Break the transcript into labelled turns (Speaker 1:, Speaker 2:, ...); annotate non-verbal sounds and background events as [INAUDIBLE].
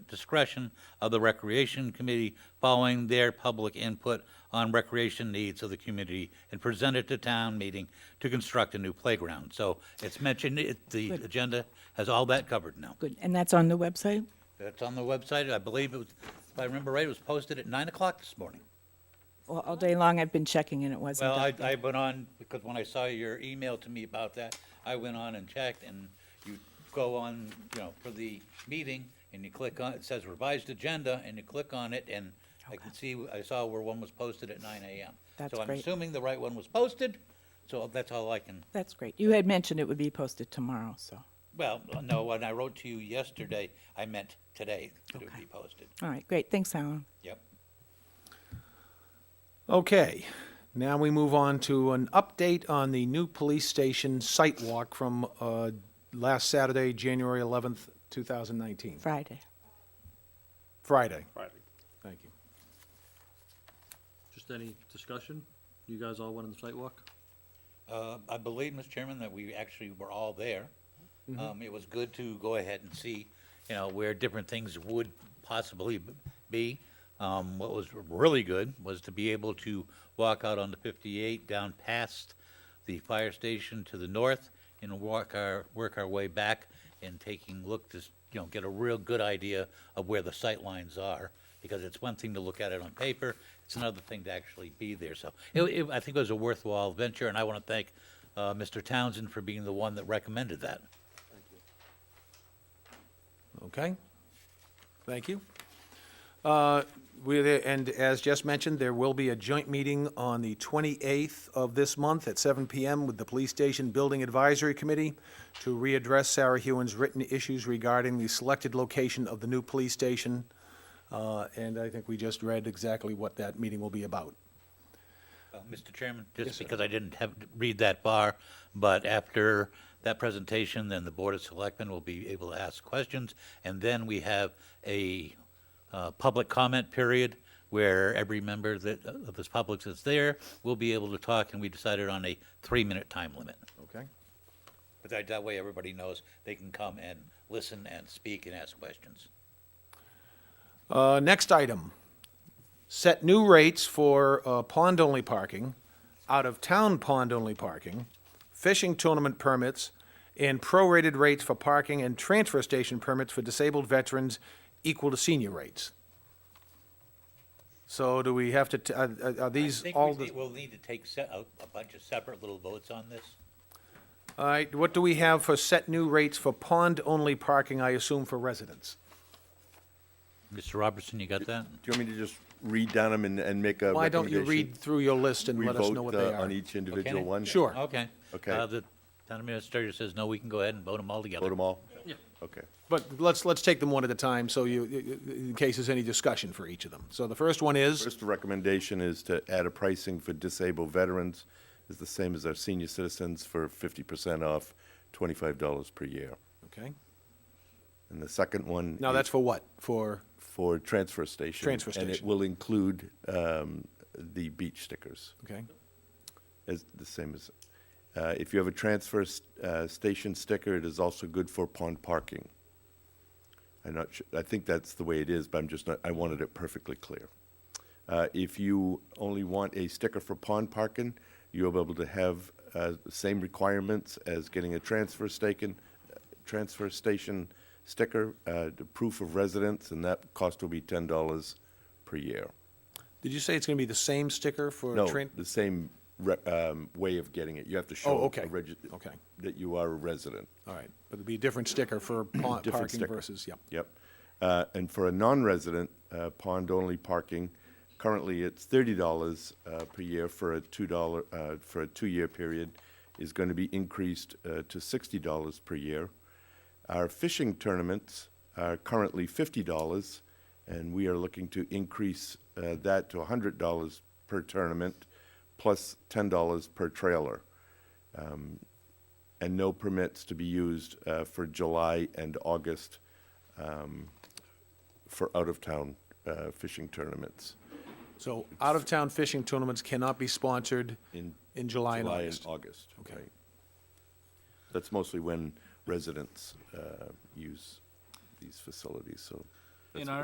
Speaker 1: discretion of the Recreation Committee following their public input on recreation needs of the community and present it to town meeting to construct a new playground. So it's mentioned, it- the agenda has all that covered now.
Speaker 2: Good, and that's on the website?
Speaker 1: That's on the website. I believe it was, if I remember right, it was posted at 9 o'clock this morning.
Speaker 2: All all day long, I've been checking and it wasn't
Speaker 1: Well, I,
Speaker 2: up there.
Speaker 1: I went on, because when I saw your email to me about that, I went on and checked, and you go on, you know, for the meeting, and you click on, it says revised agenda, and you click on it, and I could see, I saw where one was posted at nine AM.
Speaker 2: That's
Speaker 1: So I'm
Speaker 2: great.
Speaker 1: assuming the right one was posted, so that's all I can,
Speaker 2: That's great. You had mentioned it would be posted tomorrow, so,
Speaker 1: well, no, when I wrote to you yesterday, I meant today that it would
Speaker 2: Okay.
Speaker 1: be posted.
Speaker 2: all right, great, thanks, Alan.
Speaker 1: Yep.
Speaker 3: Okay, now we move on to an update on the new police station site walk from uh, last Saturday, January 11th, 2019,
Speaker 2: Friday.
Speaker 3: Friday.
Speaker 4: Friday.
Speaker 3: Thank you.
Speaker 5: Just any discussion? You guys all went on the sidewalk?
Speaker 1: Uh, I believe, Mr. Chairman, that we actually were all there. Um, It was good to go ahead and see, you know, where different things would possibly b- be. Um, What was really good was to be able to walk out on the 58 down past the fire station to the north and walk our, work our way back and taking, look, to, s- you know, get a real good idea of where the sight lines are. Because it's one thing to look at it on paper, it's another thing to actually be there. So it, it, I think it was a worthwhile venture, and I want to thank, uh, Mr. Townsend for being the one that recommended that.
Speaker 3: Okay, thank you. Uh, we- And as just mentioned, there will be a joint meeting on the 28th of this month at 7 PM with the Police Station Building Advisory Committee to readdress Sarah Hewen's written issues regarding the selected location of the new police station. Uh, And I think we just read exactly what that meeting will be about.
Speaker 1: Uh, Mr. Chairman, just because I didn't have, read that far, but after that presentation, then the Board of Selectmen will be able to ask questions, and then we have a uh, public comment period where every member that, of this public that's there will be able to talk, and we decided on a three-minute time limit.
Speaker 3: Okay?
Speaker 1: But that, that way, everybody knows they can come and listen and speak and ask questions.
Speaker 3: Uh, Next item, set new rates for uh, pond-only parking, out-of-town pond-only parking, fishing tournament permits, and prorated rates for parking and transfer station permits for disabled veterans equal to senior rates. So do we have to, t- are- are are these all, the-
Speaker 1: We'll need to take se- a, a bunch of separate little votes on this.
Speaker 3: all right, what do we have for set new rates for pond-only parking, I assume for residents?
Speaker 1: Mr. Robertson, you got that?
Speaker 4: Do you want me to just read down them and, and make a recommendation?
Speaker 3: Why don't you read through your list and
Speaker 4: We
Speaker 3: let us know
Speaker 4: vote,
Speaker 3: what they
Speaker 4: uh,
Speaker 3: are?
Speaker 4: On each individual
Speaker 1: Okay.
Speaker 4: one?
Speaker 3: Sure.
Speaker 1: Okay.
Speaker 4: Okay.
Speaker 1: Uh, The town administrator says, no, we can go ahead and vote them all together.
Speaker 4: Vote them all?
Speaker 5: Yeah.
Speaker 4: Okay.
Speaker 3: But let's, let's take them one at a time, so you, in case there's any discussion for each of them. So the first one is,
Speaker 4: First recommendation is to add a pricing for disabled veterans is the same as our senior citizens for fifty percent off, twenty-five dollars per year.
Speaker 3: okay,
Speaker 4: And the second one.
Speaker 3: now
Speaker 4: is
Speaker 3: that's for what? For,
Speaker 4: For transfer station.
Speaker 3: Transfer
Speaker 4: And it
Speaker 3: station.
Speaker 4: will include, um, the beach stickers.
Speaker 3: okay,
Speaker 4: Is the same as, uh, if you have a transfer, s- uh, station sticker, it is also good for pond parking. I'm not su, I think that's the way it is, but I'm just not, I wanted it perfectly clear. Uh, if you only want a sticker for pond parking, you'll be able to have, uh, the same requirements as getting a transfer staken, uh, transfer station sticker, uh, the proof of residence, and that cost will be ten dollars per year.
Speaker 3: did you say it's gonna be the same sticker for?
Speaker 4: No,
Speaker 3: tran-
Speaker 4: the same re- um, way of getting it. You have to show
Speaker 3: Oh, okay.
Speaker 4: a regi-
Speaker 3: Okay.
Speaker 4: that you are a resident.
Speaker 3: All right, but it'd be a different sticker
Speaker 4: [CLEARS THROAT]
Speaker 3: for pond
Speaker 4: Different
Speaker 3: parking
Speaker 4: sticker.
Speaker 3: versus, yep.
Speaker 4: Yep. Uh, and for a non-resident uh, pond-only parking, currently it's thirty dollars uh, per year for a two dollar uh, for a two-year period, is going to be increased uh, to sixty dollars per year. Our fishing tournaments are currently fifty dollars, and we are looking to increase uh, that to hundred dollars per tournament, plus ten dollars per trailer Um, and no permits to be used uh, for July and August um, for out-of-town uh, fishing tournaments.
Speaker 3: So out-of-town fishing tournaments cannot be sponsored
Speaker 4: In-
Speaker 3: in July and August.
Speaker 4: Okay.
Speaker 3: Okay.
Speaker 4: That's mostly when residents uh, use these facilities, so
Speaker 5: in our